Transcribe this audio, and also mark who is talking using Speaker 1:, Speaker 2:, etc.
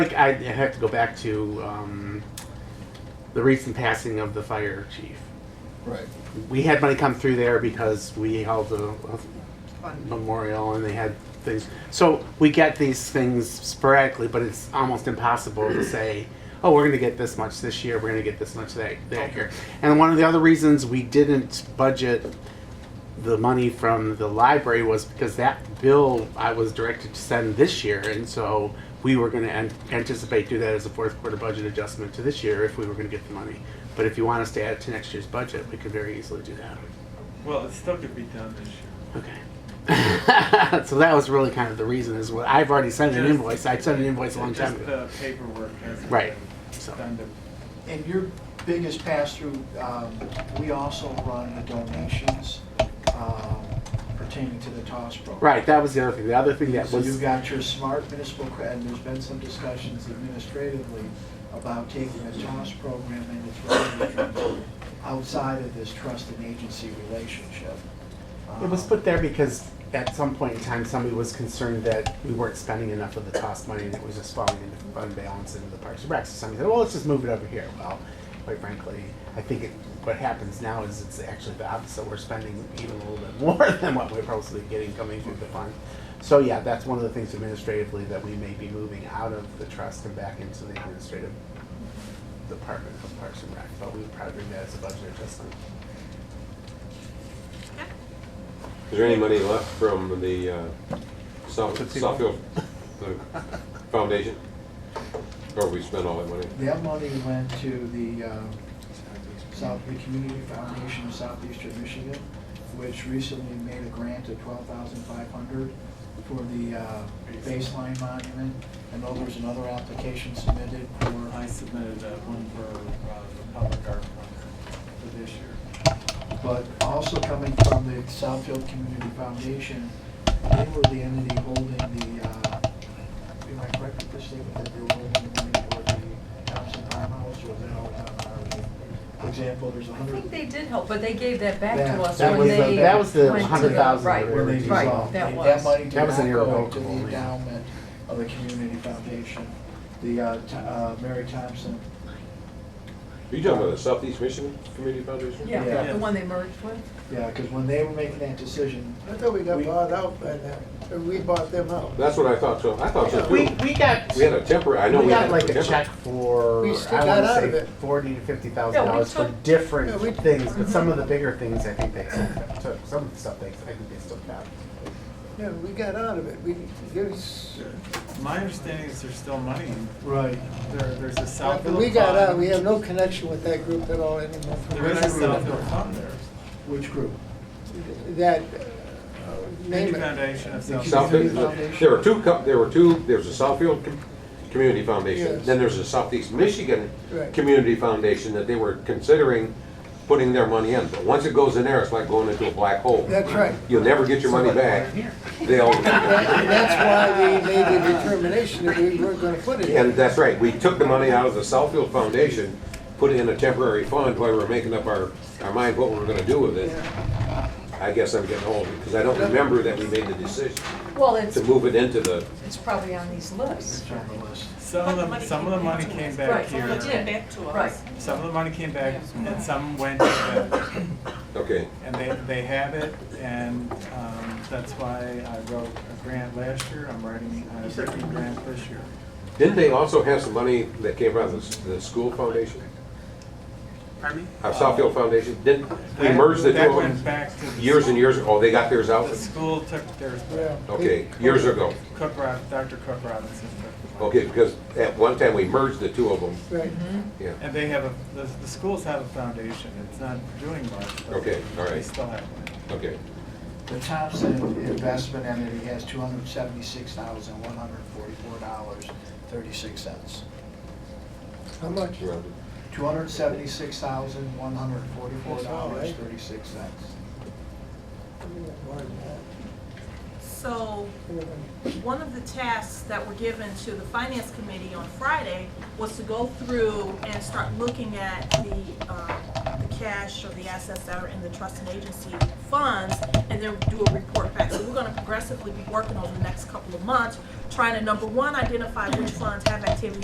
Speaker 1: think I have to go back to um, the recent passing of the fire chief.
Speaker 2: Right.
Speaker 1: We had money come through there because we held a, a
Speaker 3: fund.
Speaker 1: memorial and they had things. So we get these things sporadically, but it's almost impossible to say, oh, we're going to get this much this year, we're going to get this much that, that year. And one of the other reasons we didn't budget the money from the library was because that bill I was directed to send this year, and so we were going to an- anticipate do that as a fourth quarter budget adjustment to this year if we were going to get the money. But if you want us to add it to next year's budget, we could very easily do that.
Speaker 4: Well, it still could be done this year.
Speaker 1: Okay. so that was really kind of the reason is what I've already sent an
Speaker 4: Just-
Speaker 1: invoice. I sent an invoice a long time
Speaker 4: Just
Speaker 1: ago.
Speaker 4: the paperwork hasn't
Speaker 1: Right.
Speaker 4: been
Speaker 1: So-
Speaker 4: done to,
Speaker 2: And your biggest pass-through, um, we also run the donations um, pertaining to the TOS program.
Speaker 1: Right, that was the other thing. The other thing that
Speaker 2: So
Speaker 1: was
Speaker 2: you've got your smart municipal credit, and there's been some discussions administratively about taking the TOS program and its revenue outside of this trust and agency relationship. Um,
Speaker 1: it was put there because at some point in time somebody was concerned that we weren't spending enough of the cost money and it was just falling into fund balance into the parks and recs. So somebody said, Well let's just move it over here. Well, quite frankly, I think it, what happens now is it's actually the opposite. We're spending even a little bit more than what we're supposed to be getting coming through the fund. So yeah, that's one of the things administratively that we may be moving out of the trust and back into the administrative department of Parks and Rec, but we would probably bring that as a budget adjustment.
Speaker 5: Is there any money left from the uh, South Southfield uh, Foundation? Or we spent all that money?
Speaker 2: That money went to the um, South, the Community Foundation of Southeastern Michigan, which recently made a grant of twelve thousand five hundred for the uh, baseline monument. I know there's another application submitted
Speaker 4: or I
Speaker 2: for,
Speaker 4: submitted uh, one for uh, the public art fund for this year.
Speaker 2: but also coming from the Southfield Community Foundation, they were the entity holding the, uh, am I correct with this statement that they were holding the money for the Thompson Farmhouse, or was that all done? For example, there's a
Speaker 3: I
Speaker 2: hundred.
Speaker 3: think they did help, but they gave that back
Speaker 2: That-
Speaker 3: to us
Speaker 2: that
Speaker 3: when
Speaker 2: was the-
Speaker 3: they.
Speaker 2: that was the
Speaker 3: went to
Speaker 1: 100,000
Speaker 3: Right,
Speaker 1: that we were
Speaker 2: when they
Speaker 3: right,
Speaker 2: dissolved. That
Speaker 3: that was.
Speaker 2: money did
Speaker 1: That was an
Speaker 2: not go to the
Speaker 1: irrevocable, yeah.
Speaker 2: endowment of the community foundation. The, uh, T- uh, Mary Thompson,
Speaker 5: Are you talking about the Southeast Michigan Community Foundation?
Speaker 3: Yeah,
Speaker 2: Yeah.
Speaker 3: the one they merged with.
Speaker 2: yeah, because when they were making that decision,
Speaker 6: I thought we got
Speaker 2: We-
Speaker 6: bought out by now, we bought them out.
Speaker 5: That's what I thought, so, I thought so
Speaker 1: We,
Speaker 5: too.
Speaker 1: we got,
Speaker 5: We had a temporary, I know
Speaker 1: we
Speaker 5: we
Speaker 1: got
Speaker 5: had a
Speaker 1: like a check
Speaker 5: temporary.
Speaker 1: for, I
Speaker 6: We
Speaker 1: wanna
Speaker 6: still got out of
Speaker 1: say
Speaker 6: it.
Speaker 1: forty to fifty thousand
Speaker 3: Yeah, we
Speaker 1: dollars for
Speaker 3: took-
Speaker 6: yeah,
Speaker 1: different
Speaker 6: we-
Speaker 1: things, but some of the bigger things, I think they still took, some of the stuff they, I think they still got.
Speaker 6: Yeah, we got out of it, we, there's,
Speaker 4: My understanding is there's still money. in-
Speaker 2: right,
Speaker 4: There, there's a Southfield
Speaker 6: after
Speaker 4: fund.
Speaker 6: we got out, we have no connection with that group at all anymore.
Speaker 4: There is a Southfield fund there.
Speaker 2: which group?
Speaker 6: That, uh, name
Speaker 4: Community
Speaker 6: it.
Speaker 4: Foundation of
Speaker 2: The
Speaker 4: Southfield.
Speaker 5: South-
Speaker 2: Community Foundation.
Speaker 5: There were two, co- there were two, there was a Southfield Com- Community Foundation,
Speaker 6: Yes.
Speaker 5: then there's a Southeast Michigan
Speaker 6: Right.
Speaker 5: Community Foundation that they were considering putting their money in. But once it goes in there, it's like going into a black hole.
Speaker 6: That's right.
Speaker 5: You'll never get your money back. They'll,
Speaker 6: That- That's why we made the determination that we weren't gonna put it
Speaker 5: And
Speaker 6: in.
Speaker 5: that's right, we took the money out of the Southfield Foundation, put it in a temporary fund while we were making up our, our mind what we were gonna do with it. I guess I'm getting old, because I don't remember that we made the decision
Speaker 3: Well, it's,
Speaker 5: to move it into the,
Speaker 3: it's probably on these lists.
Speaker 2: It's on the list.
Speaker 4: Some of the, some of the money came back
Speaker 3: Right,
Speaker 4: here.
Speaker 3: it did.
Speaker 7: Back to us.
Speaker 3: Right.
Speaker 4: Some of the money came back and some went to them.
Speaker 5: okay.
Speaker 4: And they, they have it and um, that's why I wrote a grant last year. I'm writing a written grant this year.
Speaker 5: Didn't they also have some money that came out of the, the school foundation?
Speaker 4: Pardon me?
Speaker 5: Our Southfield Foundation, didn't, we merged the two
Speaker 4: Um, That
Speaker 5: of
Speaker 4: went
Speaker 5: them
Speaker 4: back to the.
Speaker 5: years and years, ago. they got theirs out?
Speaker 4: The school took theirs
Speaker 6: Yeah.
Speaker 4: back.
Speaker 5: Okay, years ago.
Speaker 4: Cook Rob, Dr. Cook Robinson took them.
Speaker 5: Okay, because at one time we merged the two of them,
Speaker 6: Right,
Speaker 5: yeah.
Speaker 4: And they have a, the, the schools have a foundation. It's not doing much. but
Speaker 5: Okay, all
Speaker 4: They
Speaker 5: right.
Speaker 4: still have one.
Speaker 5: Okay,
Speaker 2: The Thompson investment entity has two hundred seventy-six thousand, one hundred forty-four dollars, thirty-six cents.
Speaker 6: how much?
Speaker 5: Rounded.
Speaker 2: Two hundred seventy-six thousand, one hundred forty-four
Speaker 6: That's all
Speaker 2: dollars,
Speaker 6: right.
Speaker 2: thirty-six cents.
Speaker 6: I mean, more than that.
Speaker 7: So, one of the tasks that were given to the finance committee on Friday was to go through and start looking at the, uh, the cash or the assets that are in the trust and agency funds and then do a report back. So we're gonna progressively be working over the next couple of months, trying to, number one, identify which funds have activity